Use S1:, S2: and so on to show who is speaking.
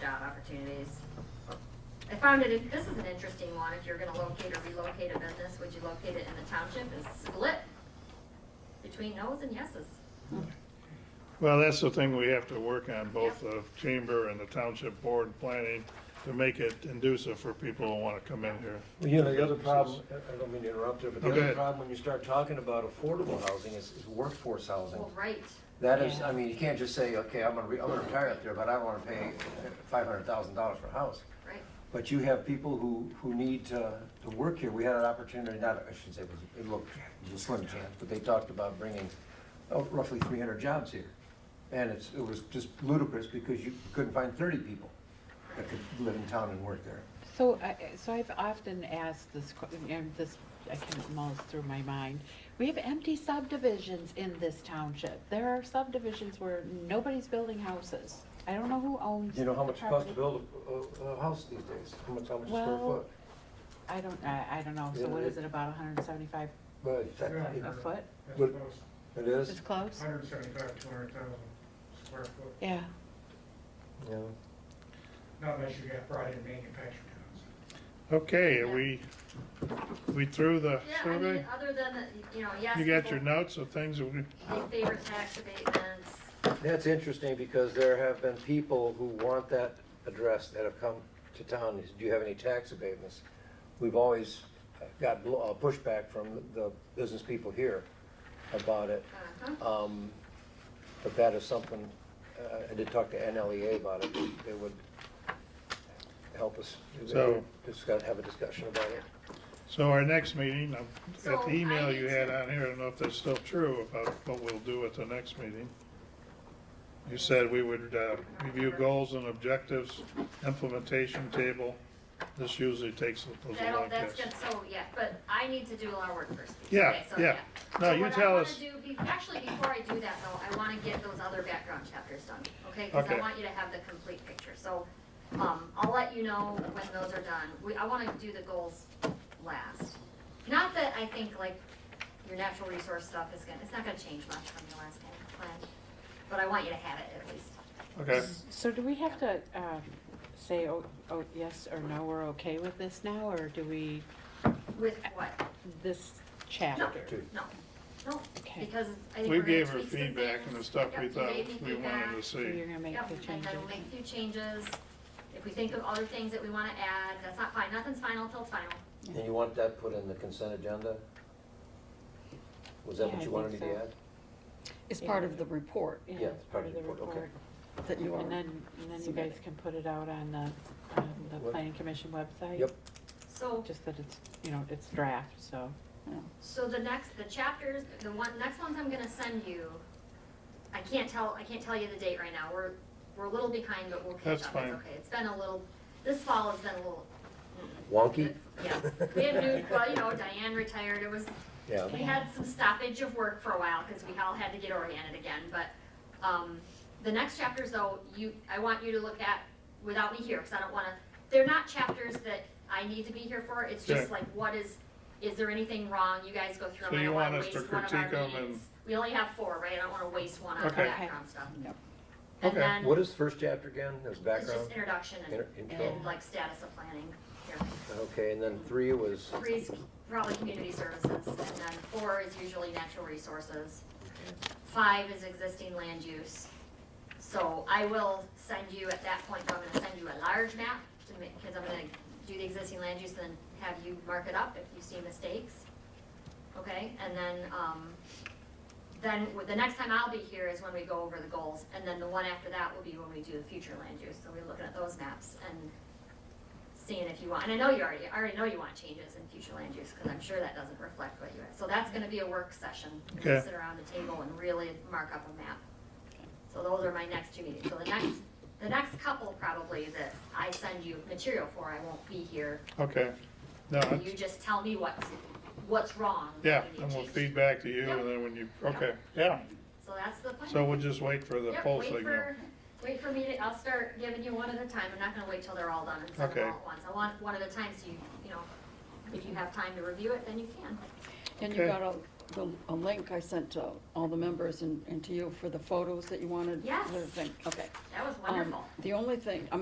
S1: opportunities. I found it, this is an interesting one, if you're gonna locate or relocate a business, would you locate it in the township and split between no's and yeses?
S2: Well, that's the thing we have to work on, both the chamber and the township board planning, to make it inducive for people who want to come in here.
S3: Well, you know, the other problem, I I don't mean to interrupt you, but
S2: No, go
S3: the other
S2: ahead.
S3: problem when you start talking about affordable housing is is workforce housing.
S1: Well, right,
S3: That is, I mean, you can't just say, okay, I'm gonna, re- I'm gonna retire up there, but I don't wanna pay five hundred thousand dollars for a house.
S1: right,
S3: But you have people who, who need to, to work here. We had an opportunity, not, I shouldn't say, it was, it looked, it was a slim chance, but they talked about bringing oh, roughly three hundred jobs here. And it's, it was just ludicrous because you couldn't find thirty people that could live in town and work there.
S4: So, I- so I've often asked this, que- and this, I can mull through my mind. We have empty subdivisions in this township. There are subdivisions where nobody's building houses. I don't know who owns.
S3: You know how
S4: the
S3: much it costs to
S4: property.
S3: build a, a, a house these days? How much, how much a square
S4: Well,
S3: foot?
S4: I don't, I, I don't know. So
S3: Yeah,
S4: what
S3: it-
S4: is it, about hundred and seventy-five
S3: But it's that-
S5: Yeah.
S4: a
S3: it-
S4: foot?
S5: That's
S3: But-
S5: about
S3: it
S4: It's
S3: is,
S4: close?
S5: 175, 200,000 square foot,
S4: Yeah,
S3: yeah.
S5: not unless you got brought in manufactured housing.
S2: Okay, are we, we through the
S1: yeah, I mean,
S2: survey?
S1: other than, the- you know, yes,
S2: You got your
S1: people,
S2: notes of things that we,
S1: they favor tax abatements,
S3: That's interesting because there have been people who want that address that have come to town. Is, Do you have any tax abatements? We've always got bl- uh, pushback from the business people here about it.
S1: uh-huh.
S3: Um, But that is something, uh, I did talk to NLEA about it. They- They would help us. They
S2: So-
S3: would Discuss, have a discussion about it.
S2: so our next meeting, um, at
S1: So,
S2: the
S1: I
S2: email
S1: need
S2: you had
S1: to-
S2: on here, I don't know if that's still true about what we'll do at the next meeting. You said we would uh, review goals and objectives, implementation table. This usually takes us a
S1: That'll,
S2: long
S1: that's
S2: test.
S1: good, so, yeah, but I need to do a lot of work first.
S2: Yeah,
S1: Okay, so,
S2: yeah. No,
S1: So
S2: you
S1: what I
S2: tell
S1: wanna
S2: us.
S1: do be- Actually, before I do that though, I wanna get those other background chapters done, okay? Cause I
S2: Okay.
S1: want you to have the complete picture, so, um, I'll let you know when those are done. We, I wanna do the goals last. Not that I think like your natural resource stuff is gonna, it's not gonna change much from your last plan, but I want you to have it at least.
S2: Okay,
S4: so do we have to, um, say, oh, oh, yes or no, we're okay with this now, or do we,
S1: With what?
S4: this chapter?
S3: Two.
S1: No, no,
S4: Okay.
S1: because I think
S2: we
S1: we're gonna
S2: gave her
S1: tweak some
S2: feedback
S1: things.
S2: and the stuff
S1: Yep,
S2: we
S1: you
S2: thought
S1: gave me
S2: we
S1: feedback.
S2: wanted to
S4: So you're
S2: see.
S4: gonna make
S1: Yep,
S4: the
S1: and
S4: changes?
S1: then we'll make a few changes. If we think of other things that we wanna add, that's not fine, nothing's final till it's final.
S3: And you want that put in the consent agenda? Was that
S4: Yeah,
S3: what
S4: I
S3: you wanted me
S4: think
S3: to
S4: so.
S3: add?
S6: It's part of the report
S3: Yeah,
S4: it's part of the report.
S3: okay.
S6: that you
S4: And
S6: are.
S4: then, and then you guys
S6: submitting.
S4: can put it out on the, on the
S3: What?
S4: planning commission website?
S3: Yep.
S1: So,
S4: Just that it's, you know, it's draft, so.
S1: so the next, the chapters, the one, next ones I'm gonna send you, I can't tell, I can't tell you the date right now, we're, we're a little behind, but we'll catch
S2: That's
S1: up,
S2: fine.
S1: it's okay. It's been a little, this fall has been a little,
S3: Wonky?
S1: yeah, we had new, well, you know, Diane retired, it was,
S3: Yeah.
S1: We had some stoppage of work for a while because we all had to get oriented again, but, um, the next chapters though, you, I want you to look at without me here, because I don't wanna, they're not chapters that I need to be here for, it's just
S2: Sure.
S1: like, what is, is there anything wrong? You guys go through
S2: So
S1: them, I
S2: you
S1: don't wanna
S2: want us to
S1: waste one of our
S2: critique 'em and-
S1: meetings. We only have four, right? I don't wanna waste one on the
S2: Okay.
S4: Okay.
S1: background stuff.
S6: Yep.
S1: And
S2: Okay.
S1: then,
S3: What is the first chapter again? It was
S1: it's just
S3: background?
S1: introduction and,
S3: Inter- Intro?
S1: and like status of planning. Here.
S3: Okay, and then three was,
S1: Three's probably community services, and then four is usually natural resources. Five is existing land use. So I will send you, at that point, I'm gonna send you a large map to make, cause I'm gonna do the existing land use and then have you mark it up if you see mistakes. Okay, and then, um, then w- the next time I'll be here is when we go over the goals, and then the one after that will be when we do the future land use, so we're looking at those maps and seeing if you want, and I know you already, I already know you want changes in future land use, because I'm sure that doesn't reflect what you, so that's gonna be a work session. We're gonna
S2: Okay.
S1: Sit around the table and really mark up a map. So those are my next two meetings, so the next, the next couple probably that I send you material for, I won't be here,
S2: okay. No,
S1: and
S2: it's-
S1: you just tell me what's, what's wrong. what
S2: yeah,
S1: you need
S2: and we'll
S1: changed.
S2: feedback to you
S1: Yep.
S2: and then when you, okay, yeah.
S1: So that's the plan.
S2: So we'll just wait for the
S1: Yep,
S2: poll
S1: wait
S2: signal.
S1: for- Wait for me to, I'll start giving you one at a time, I'm not gonna wait till they're all done and send
S2: Okay.
S1: them all at once. I want one at a time, so you, you know, if you have time to review it, then you can.
S6: And you
S2: Okay.
S6: got a, the- a link I sent to all the members and, and to you for the photos that you wanted.
S1: Yes.
S6: the thing. Okay.
S1: That was
S6: Um,
S1: wonderful.
S6: The only thing, I mean,